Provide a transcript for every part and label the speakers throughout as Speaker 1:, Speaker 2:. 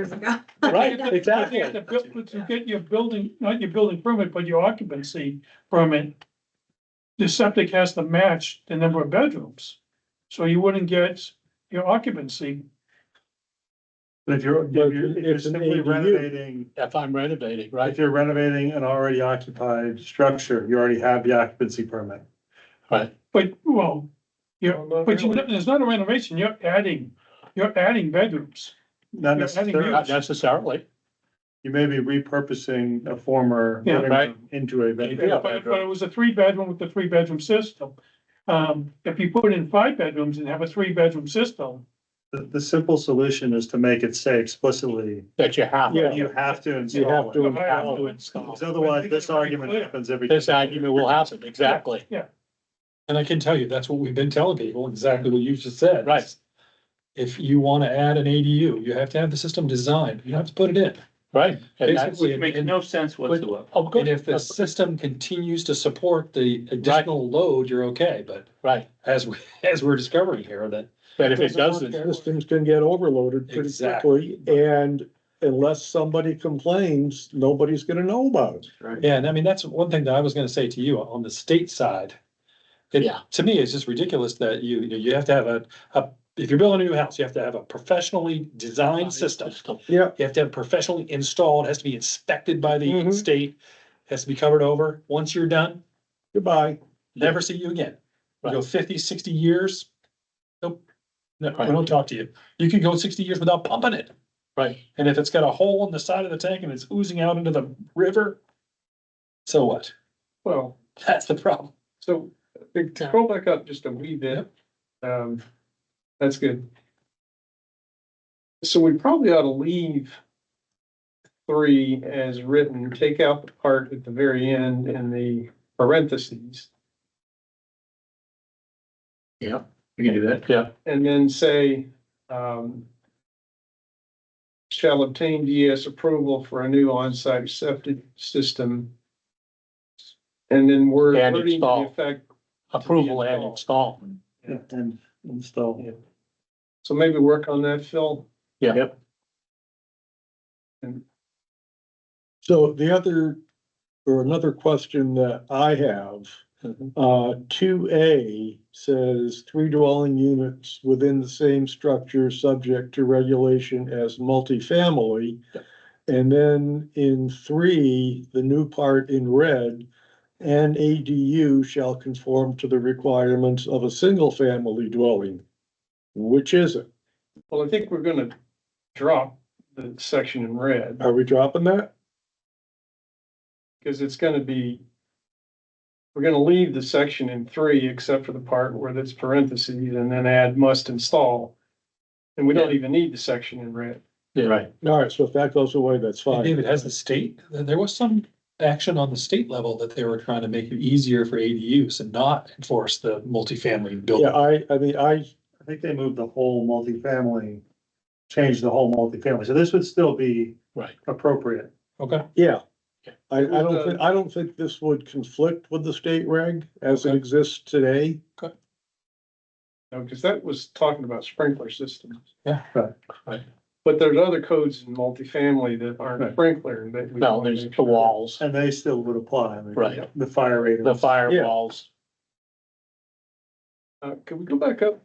Speaker 1: years ago.
Speaker 2: Right,
Speaker 3: You have to-
Speaker 2: exactly.
Speaker 3: You have to build- but you get your building, not your building permit, but your occupancy permit. The septic has to match the number of bedrooms, so you wouldn't get your occupancy.
Speaker 4: But if you're, if
Speaker 2: But
Speaker 4: you're, if you're
Speaker 2: it's an
Speaker 4: simply
Speaker 2: ADU.
Speaker 4: renovating,
Speaker 2: If I'm renovating,
Speaker 4: if
Speaker 2: right?
Speaker 4: you're renovating an already occupied structure, you already have the occupancy permit.
Speaker 2: Right.
Speaker 3: But, well, but you,
Speaker 2: Not
Speaker 3: it's not a renovation, you're adding, you're adding bedrooms.
Speaker 4: Not
Speaker 3: Yeah, I think
Speaker 4: necessarily,
Speaker 2: necessarily.
Speaker 4: you may be repurposing a former
Speaker 3: Yeah,
Speaker 4: living
Speaker 2: right.
Speaker 4: room into a
Speaker 2: Yeah.
Speaker 4: bedroom.
Speaker 3: But, but it was a three bedroom with a three bedroom system. Um, if you put in five bedrooms and have a three bedroom system,
Speaker 4: The, the simple solution is to make it say explicitly,
Speaker 2: That you have.
Speaker 3: Yeah.
Speaker 4: you have to
Speaker 2: You
Speaker 4: install
Speaker 2: have
Speaker 4: it.
Speaker 2: to
Speaker 3: You have
Speaker 2: have
Speaker 3: to
Speaker 2: to install.
Speaker 4: Because otherwise, this argument happens every.
Speaker 2: This argument will happen, exactly.
Speaker 5: And I can tell you, that's what we've been telling people, exactly what you just said.
Speaker 2: Right.
Speaker 5: If you wanna add an ADU, you have to have the system designed, you have to put it in.
Speaker 2: Right. And that's, Oh,
Speaker 5: Basically, and- and-
Speaker 6: sense
Speaker 2: of
Speaker 5: and
Speaker 2: course,
Speaker 5: if the system continues to support the additional load, you're okay, but
Speaker 2: right.
Speaker 5: as, we as we're discovering here, that.
Speaker 2: But if it doesn't,
Speaker 7: Systems can get overloaded pretty
Speaker 5: Exactly.
Speaker 7: quickly, and unless somebody complains, nobody's gonna know about it.
Speaker 5: Yeah, and I mean, that's one thing that I was gonna say to you on the state side. It,
Speaker 2: Yeah.
Speaker 5: to me, it's just ridiculous that you, you have to have a, a, if you're building a new house, you have to have a professionally designed system.
Speaker 7: Yeah.
Speaker 5: You have to have it professionally installed, has to be inspected by the
Speaker 2: Mm-hmm.
Speaker 7: Mhm.
Speaker 5: state, has to be covered over. Once you're done,
Speaker 7: Goodbye.
Speaker 5: never see you again. You go
Speaker 2: Right.
Speaker 5: 50, 60 years. Nope. No, we
Speaker 2: Right.
Speaker 5: don't talk to you. You can go sixty years without pumping it.
Speaker 2: Right.
Speaker 5: And if it's got a hole in the side of the tank and it's oozing out into the river, so what?
Speaker 6: Well,
Speaker 5: That's the problem.
Speaker 6: so to to go back up just a wee bit, um, that's good. So we probably ought to leave three as written, take out the part at the very end and the parentheses.
Speaker 2: We can do that, yeah.
Speaker 6: and then say, um, shall obtain DES approval for a new on-site septic system. And then we're.
Speaker 2: And
Speaker 6: putting the
Speaker 2: install.
Speaker 6: effect-
Speaker 2: Approval and install.
Speaker 4: And install.
Speaker 6: So maybe work on that, Phil.
Speaker 2: Yeah.
Speaker 7: So the other, or another question that I have, uh, two A says three dwelling units within the same structure, subject to regulation as multifamily. And then in three, the new part in red, an ADU shall conform to the requirements of a single-family dwelling. Which is it?
Speaker 6: Well, I think we're gonna drop the section in red,
Speaker 7: Are we dropping that?
Speaker 6: because it's gonna be, we're gonna leave the section in three, except for the part where that's parentheses, and then add must install. And we don't even need the section in red.
Speaker 2: Yeah, right.
Speaker 7: All right, so if that goes away, that's
Speaker 5: Hey,
Speaker 7: fine.
Speaker 5: David, has the state, there was some action on the state level that they were trying to make it easier for ADUs and not enforce the multifamily
Speaker 7: Yeah,
Speaker 5: building.
Speaker 7: I, I mean, I,
Speaker 4: I think they moved the whole multifamily, changed the whole multifamily, so this would still be.
Speaker 2: Right.
Speaker 4: Appropriate.
Speaker 5: Okay,
Speaker 7: yeah.
Speaker 2: Yeah.
Speaker 7: I, I
Speaker 6: Would, uh,
Speaker 7: don't think, I don't think this would conflict with the state reg as it exists today.
Speaker 6: No, because that was talking about sprinkler systems.
Speaker 5: Yeah.
Speaker 4: Right,
Speaker 2: right.
Speaker 6: But there's other codes in multifamily that aren't
Speaker 4: Right.
Speaker 6: sprinkler that. we
Speaker 2: No,
Speaker 6: wanna
Speaker 2: there's
Speaker 6: make
Speaker 2: the
Speaker 6: sure.
Speaker 2: walls,
Speaker 4: And they still would apply. I mean,
Speaker 2: Right.
Speaker 4: The fire rate.
Speaker 2: the
Speaker 7: Yeah.
Speaker 2: firewalls.
Speaker 6: Uh, can we go back up?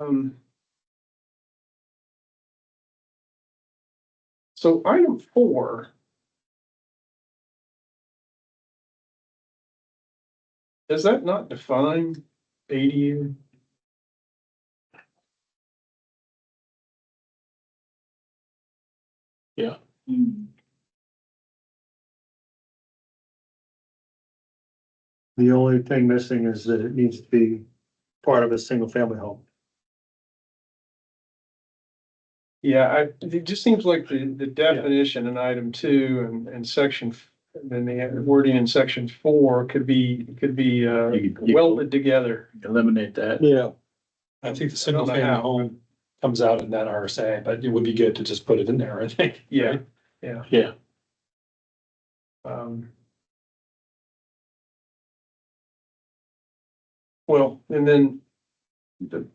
Speaker 6: Um. So item four. Does that not define ADU?
Speaker 4: The only thing missing is that it needs to be part of a single family home.
Speaker 6: Yeah, I, it just seems like the, the definition in item two and, and section, f- then the wording in section four could be, could be, uh,
Speaker 2: You- you-
Speaker 6: welded together.
Speaker 2: Eliminate that.
Speaker 7: Yeah,
Speaker 5: I think
Speaker 6: Um, I
Speaker 5: the single
Speaker 6: don't know
Speaker 5: family
Speaker 6: how.
Speaker 5: home comes out in that RSA, but it would be good to just put it in there, I think.
Speaker 6: Yeah,
Speaker 2: Yeah,
Speaker 6: um. Well, and then
Speaker 1: the